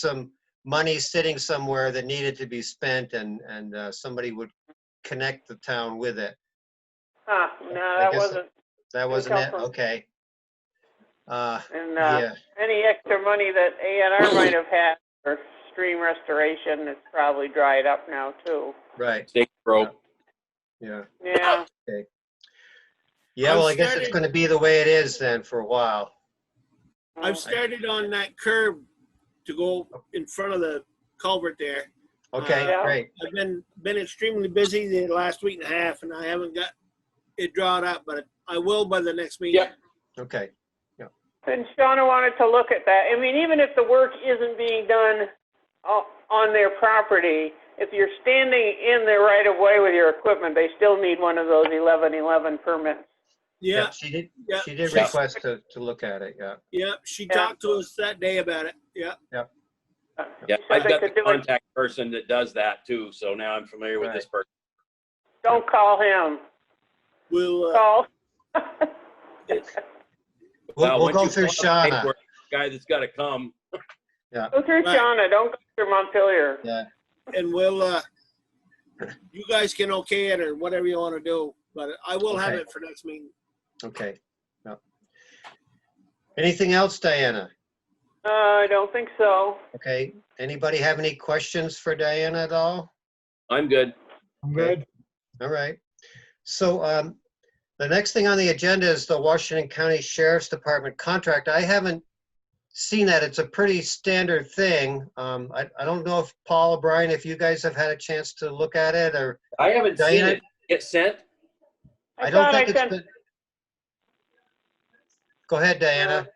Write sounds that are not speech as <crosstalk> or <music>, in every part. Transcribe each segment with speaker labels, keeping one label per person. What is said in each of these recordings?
Speaker 1: some money sitting somewhere that needed to be spent and, and uh, somebody would connect the town with it.
Speaker 2: Huh, no, that
Speaker 1: guess-
Speaker 2: wasn't,
Speaker 1: That wasn't it?
Speaker 2: Telephone.
Speaker 1: Okay. Uh,
Speaker 2: and, uh,
Speaker 1: yeah,
Speaker 2: any extra money that A and R might have had for stream restoration, it's probably dried up now too.
Speaker 1: right,
Speaker 3: State Pro.
Speaker 1: yeah.
Speaker 2: Yeah,
Speaker 1: Yeah, well, I guess it's
Speaker 4: started-
Speaker 1: gonna be the way it is then for a while. Oh,
Speaker 2: Mm,
Speaker 4: I've started on that curb to go in front of the culvert there.
Speaker 1: Okay,
Speaker 2: Yeah.
Speaker 1: great.
Speaker 4: I've been, been extremely busy the last week and a half and I haven't got it drawn up, but I will by the next meeting.
Speaker 3: Yep.
Speaker 1: Okay,
Speaker 2: and Shauna wanted to look at that. I mean, even if the work isn't being done o- on their property, if you're standing in the right of way with your equipment, they still need one of those eleven eleven permits.
Speaker 1: yeah,
Speaker 4: Yeah,
Speaker 1: she did,
Speaker 4: yeah,
Speaker 1: she did
Speaker 3: Yeah.
Speaker 1: request to, to look at it, yeah.
Speaker 4: yeah. She
Speaker 2: Yeah.
Speaker 4: talked to us that day about it. Yeah.
Speaker 3: Yeah,
Speaker 2: So
Speaker 3: I've
Speaker 2: they
Speaker 3: got the
Speaker 2: could do it.
Speaker 3: contact person that does that too, so now I'm familiar with this person.
Speaker 2: Don't call him,
Speaker 4: We'll, uh,
Speaker 2: call. <laughs>
Speaker 3: It's-
Speaker 1: We'll,
Speaker 3: now,
Speaker 1: we'll
Speaker 3: once
Speaker 1: go
Speaker 3: you
Speaker 1: through
Speaker 3: fill out the
Speaker 1: Shauna.
Speaker 3: paperwork, Guy that's gotta come.
Speaker 2: Go through
Speaker 4: Right.
Speaker 2: Shauna, don't go through Montpelier.
Speaker 1: Yeah,
Speaker 2: Oh.
Speaker 4: and we'll, uh, you guys can okay it or whatever you want to do, but I will have
Speaker 1: Okay.
Speaker 4: it for next meeting.
Speaker 1: okay. yeah. Anything else, Diana?
Speaker 2: Uh, I don't think so.
Speaker 1: Okay, anybody have any questions for Diana at all?
Speaker 3: I'm good.
Speaker 5: I'm
Speaker 1: Okay.
Speaker 5: good.
Speaker 1: All right. So um, the next thing on the agenda is the Washington County Sheriff's Department contract. I haven't seen that. It's a pretty standard thing. Um, I, I don't know if Paul or Brian, if you guys have had a chance to look at it or,
Speaker 3: I haven't seen
Speaker 1: Diana?
Speaker 3: it get sent.
Speaker 1: I don't
Speaker 2: thought I
Speaker 1: think it's
Speaker 2: sent.
Speaker 1: been. Go ahead, Diana.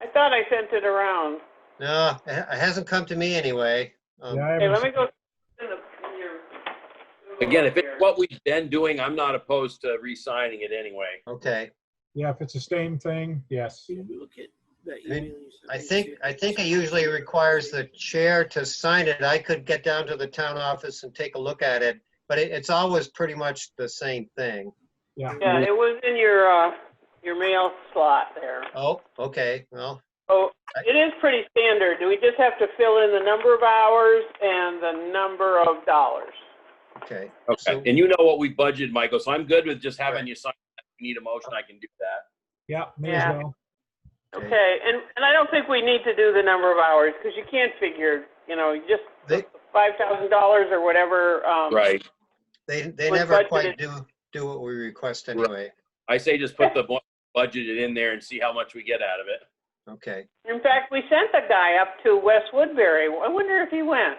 Speaker 2: I thought I sent it around.
Speaker 1: No, it ha- it hasn't come to me anyway. Um,
Speaker 5: Yeah, I
Speaker 2: Hey, let
Speaker 5: haven't-
Speaker 2: me go. in the- in your-
Speaker 3: Again, if it's
Speaker 2: here.
Speaker 3: what we've been doing, I'm not opposed to re-signing it anyway.
Speaker 1: Okay.
Speaker 5: yeah, if it's the same thing, yes.
Speaker 4: Can you look at that
Speaker 1: I mean,
Speaker 4: email you sent
Speaker 1: I
Speaker 4: me,
Speaker 1: think,
Speaker 4: too?
Speaker 1: I think it usually requires the chair to sign it. I could get down to the town office and take a look at it, but it, it's always pretty much the same thing.
Speaker 2: Yeah, it was in your, uh, your mail slot there.
Speaker 1: Oh, okay, well,
Speaker 2: Oh, it is pretty standard. We just have to fill in the number of hours and the number of dollars.
Speaker 1: okay.
Speaker 3: Okay,
Speaker 1: So-
Speaker 3: and you know what we budgeted, Michael, so I'm good with just having
Speaker 1: Right.
Speaker 3: you sign. it. If you need a motion, I can do that.
Speaker 5: Yeah, may as
Speaker 2: Yeah.
Speaker 5: well.
Speaker 1: Okay.
Speaker 2: Okay, and, and I don't think we need to do the number of hours, because you can't figure, you know, you just
Speaker 1: They,
Speaker 2: five thousand dollars or whatever, um.
Speaker 3: Right.
Speaker 1: they, they
Speaker 2: Was
Speaker 1: never
Speaker 2: budgeted.
Speaker 1: quite do, do what we request anyway,
Speaker 3: I say just put the bu- budgeted in there and see how much we get out of it.
Speaker 1: okay.
Speaker 2: In fact, we sent the guy up to West Woodbury. I wonder if he went.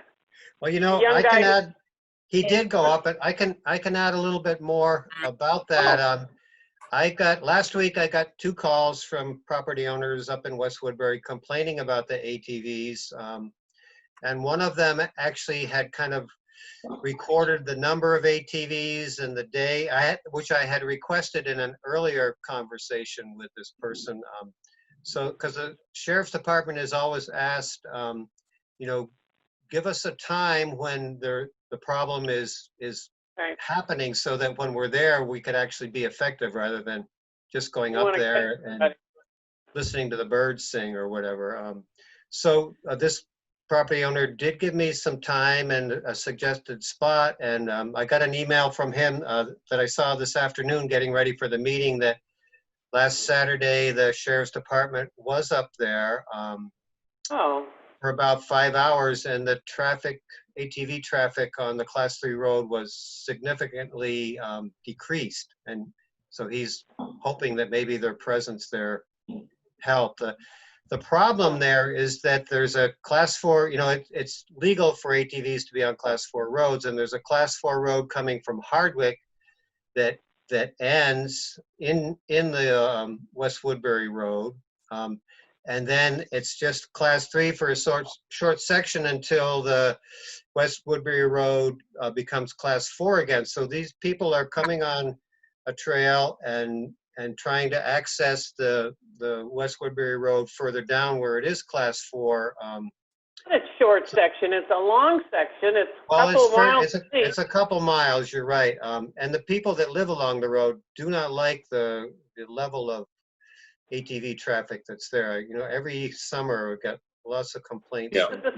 Speaker 1: Well, you know,
Speaker 2: Young
Speaker 1: I can
Speaker 2: guy-
Speaker 1: add, he did go up, but I can, I can add a little bit more about that. Um, I got, last week I got two calls from property owners up in West Woodbury complaining about the ATVs. um, And one of them actually had kind of recorded the number of ATVs and the day, I had, which I had requested in an earlier conversation with this person. um, So, because the sheriff's department is always asked, um, you know, give us a time when there, the problem is, is
Speaker 2: Right.
Speaker 1: happening so that when we're there, we could actually be effective rather than just going
Speaker 2: You
Speaker 1: up
Speaker 2: wanna
Speaker 1: there
Speaker 2: catch
Speaker 1: and
Speaker 2: somebody.
Speaker 1: listening to the birds sing or whatever. Um, So uh, this property owner did give me some time and a suggested spot. And um, I got an email from him uh, that I saw this afternoon, getting ready for the meeting, that last Saturday, the sheriff's department was up there. um,
Speaker 2: Oh,
Speaker 1: for about five hours and the traffic, ATV traffic on the class three road was significantly um, decreased. And so he's hoping that maybe their presence there helped. The- The problem there is that there's a class four, you know, it- it's legal for ATVs to be on class four roads and there's a class four road coming from Hardwick that, that ends in, in the um, West Woodbury Road. Um, and then it's just class three for a short, short section until the West Woodbury Road uh, becomes class four again. So these people are coming on a trail and, and trying to access the, the West Woodbury Road further down where it is class four. um,
Speaker 2: it's short section. It's a long section. It's a
Speaker 1: Well,
Speaker 2: couple
Speaker 1: it's,
Speaker 2: of
Speaker 1: fur-
Speaker 2: miles.
Speaker 1: it's, a-
Speaker 2: deep.
Speaker 1: it's a couple miles, you're right. Um, and the people that live along the road do not like the, the level of ATV traffic that's there. You know, every summer we've got lots of complaints.
Speaker 3: Yeah.
Speaker 1: from
Speaker 2: <laughs> It's a